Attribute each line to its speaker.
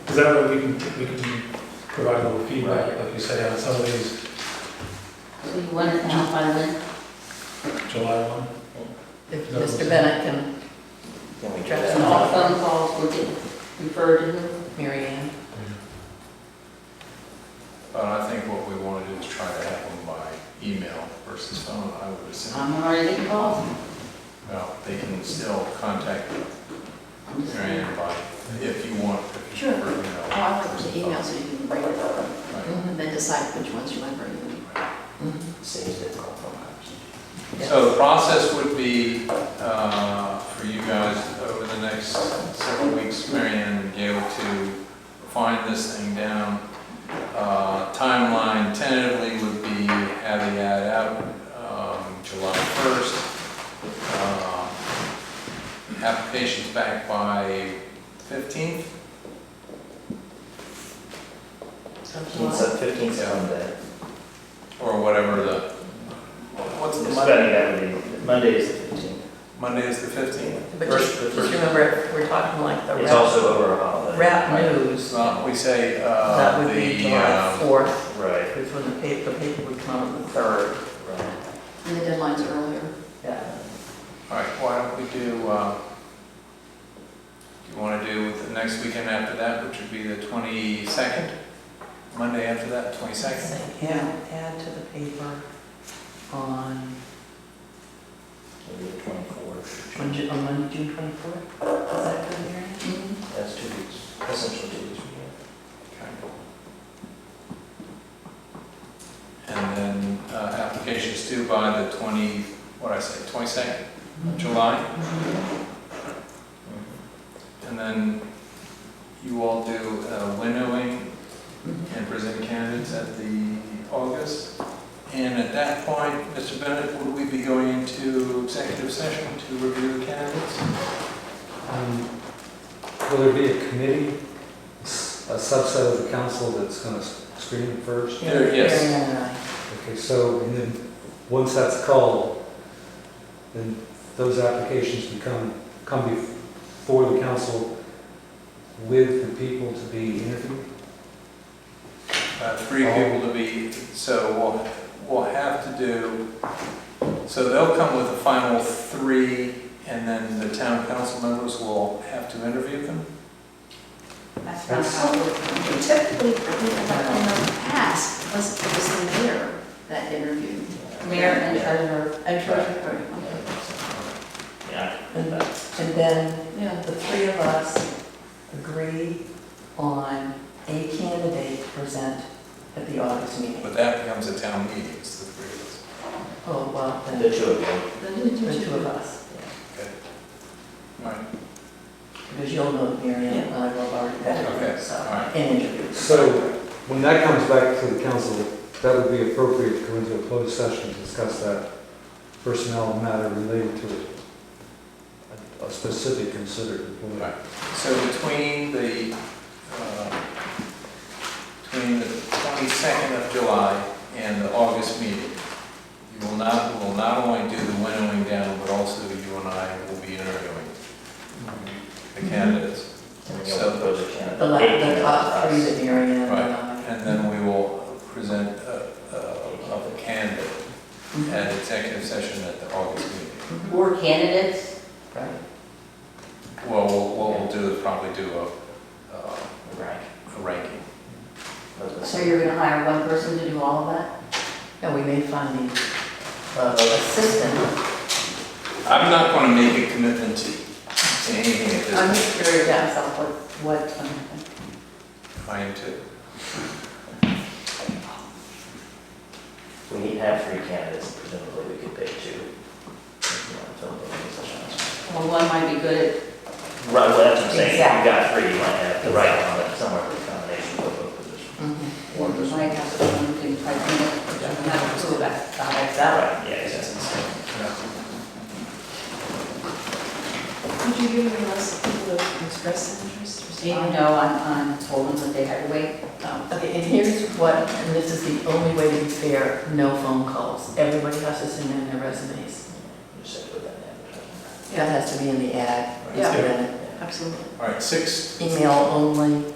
Speaker 1: Because that way we can, we can provide a little feedback, like you say, on some of these
Speaker 2: So you want it now by when?
Speaker 1: July one.
Speaker 3: If
Speaker 1: That was-
Speaker 3: Mr. Bennett can,
Speaker 4: Can
Speaker 3: Drop
Speaker 4: we get
Speaker 3: some
Speaker 2: All
Speaker 3: off.
Speaker 4: that?
Speaker 2: phone calls will get referred to who?
Speaker 3: Mary Ann,
Speaker 5: But Uh, I think what we want to do is try to have them by email versus phone, I would assume.
Speaker 2: I'm already getting calls.
Speaker 5: Well, they can still contact
Speaker 2: I'm just
Speaker 5: Mary
Speaker 2: saying.
Speaker 5: Ann by, if you want. if you
Speaker 6: Sure.
Speaker 5: prefer
Speaker 6: Oh,
Speaker 5: email
Speaker 6: I want the
Speaker 5: versus
Speaker 6: email so you can bring it over
Speaker 5: phone. Right.
Speaker 3: Mm-hmm.
Speaker 6: and then decide which ones you want to bring.
Speaker 4: Saves the compromise.
Speaker 5: So the process would be uh, for you guys over the next several weeks, Marianne and Gail, to find this thing down. Uh, Timeline tentatively would be have the ad out um, July 1st. Uh, Applications back by 15th?
Speaker 3: of
Speaker 4: It's
Speaker 3: July.
Speaker 4: a fifteen Monday.
Speaker 5: Or whatever the, what's the
Speaker 4: It's
Speaker 5: Monday?
Speaker 4: Monday, that would be, Monday is the fifteenth.
Speaker 5: Monday is the 15th.
Speaker 3: But
Speaker 5: First-
Speaker 3: just,
Speaker 5: the
Speaker 3: just
Speaker 5: first-
Speaker 3: remember, if we're talking like the
Speaker 4: It's
Speaker 3: rap,
Speaker 4: also over a holiday.
Speaker 3: rap
Speaker 4: Right.
Speaker 3: news,
Speaker 5: Well, we say uh,
Speaker 3: that would be
Speaker 5: the,
Speaker 3: July
Speaker 5: um,
Speaker 3: fourth,
Speaker 4: Right,
Speaker 3: which when the paper, the paper would come on the third,
Speaker 4: right.
Speaker 6: And the deadline's earlier.
Speaker 3: yeah.
Speaker 5: all right, why don't we do, uh, do you want to do the next weekend after that, which would be the 22nd? Monday after that, 22nd?
Speaker 3: Yeah, add to the paper on,
Speaker 4: Maybe the twenty-fourth.
Speaker 3: on Ju- on Monday, June twenty-fourth, is that good, Mary Ann?
Speaker 6: Mm-hmm.
Speaker 2: Mhm.
Speaker 4: That's two weeks, essentially two weeks.
Speaker 5: Okay. And then uh, applications due by the 20, what'd I say, 22nd of July? And then you all do uh, winnowing and present candidates at the August. And at that point, Mr. Bennett, would we be going into executive session to review the candidates?
Speaker 7: Um, Will there be a committee, s- a subset of the council that's going to screen it first?
Speaker 5: There- Yes.
Speaker 3: Mary Ann and I.
Speaker 7: Okay, so, and then, once that's called, then those applications become, come before the council with the people to be interviewed?
Speaker 5: Uh, Three people to be, so we'll, we'll have to do, so they'll come with the final three, and then the town council members will have to interview them?
Speaker 2: That's not
Speaker 7: That's-
Speaker 2: how it works.
Speaker 6: We Typically, we have, in the past, was, it was the mayor that interviewed.
Speaker 2: Mayor and treasurer.
Speaker 3: And treasurer.
Speaker 4: Yeah.
Speaker 3: And and then
Speaker 6: Yeah.
Speaker 3: the three of us agree on a candidate to present at the August meeting.
Speaker 5: But that becomes a town meeting, it's the three of us.
Speaker 3: Oh, well, then
Speaker 4: The two of you.
Speaker 3: the two of us,
Speaker 5: All right,
Speaker 3: because you'll know Mary Ann and I will already
Speaker 5: Okay,
Speaker 3: vetted, so,
Speaker 5: all right.
Speaker 3: and interviewed.
Speaker 7: So, when that comes back to the council, that would be appropriate to go into a closed session to discuss that personnel matter related to a- a specific considered employee.
Speaker 5: Right. So between the, uh, between the 22nd of July and the August meeting, you will not, will not only do the winnowing down, but also you and I will be interviewing the candidates.
Speaker 4: And then you'll propose a candidate.
Speaker 3: The la- the
Speaker 4: Eighteen
Speaker 3: top
Speaker 4: of
Speaker 3: three
Speaker 4: us.
Speaker 3: that Mary Ann and
Speaker 5: Right.
Speaker 3: I.
Speaker 5: And then we will present a, a a candidate at executive session at the August meeting.
Speaker 2: Or candidates.
Speaker 3: Right.
Speaker 5: Well, we'll- what we'll do is probably do a, uh,
Speaker 4: Right.
Speaker 5: a ranking.
Speaker 4: Those are-
Speaker 2: So you're gonna hire one person to do all of that?
Speaker 3: And we may find the uh, assistant.
Speaker 5: I'm not going to make a commitment to to anything at this point.
Speaker 3: I'm just curious myself what, what, um,
Speaker 5: I am too.
Speaker 4: We need to have three candidates, presumably we could pick two. If you want to fill the positions.
Speaker 2: Well, one might be good at,
Speaker 4: Right, well, that's what I'm saying, if you got three, you might have the right one, but somewhere for the combination of both positions.
Speaker 3: Mm-hmm.
Speaker 2: or
Speaker 4: One person.
Speaker 2: might have someone who can type in it, which I'm not sure about how that's out.
Speaker 4: Right, yeah, exactly.
Speaker 6: Would you give me a list of people who expressed interest or
Speaker 2: Even though I'm, I'm told them that they had to wait, um,
Speaker 3: Okay, and here's what, and this is the only way to be fair, no phone calls. Everybody has to send in their resumes.
Speaker 4: You just have to put that in advertising.
Speaker 3: That has to be in the ad.
Speaker 5: Right.
Speaker 3: Mr. Bennett.
Speaker 6: Absolutely.
Speaker 5: All right, six,
Speaker 3: Email only,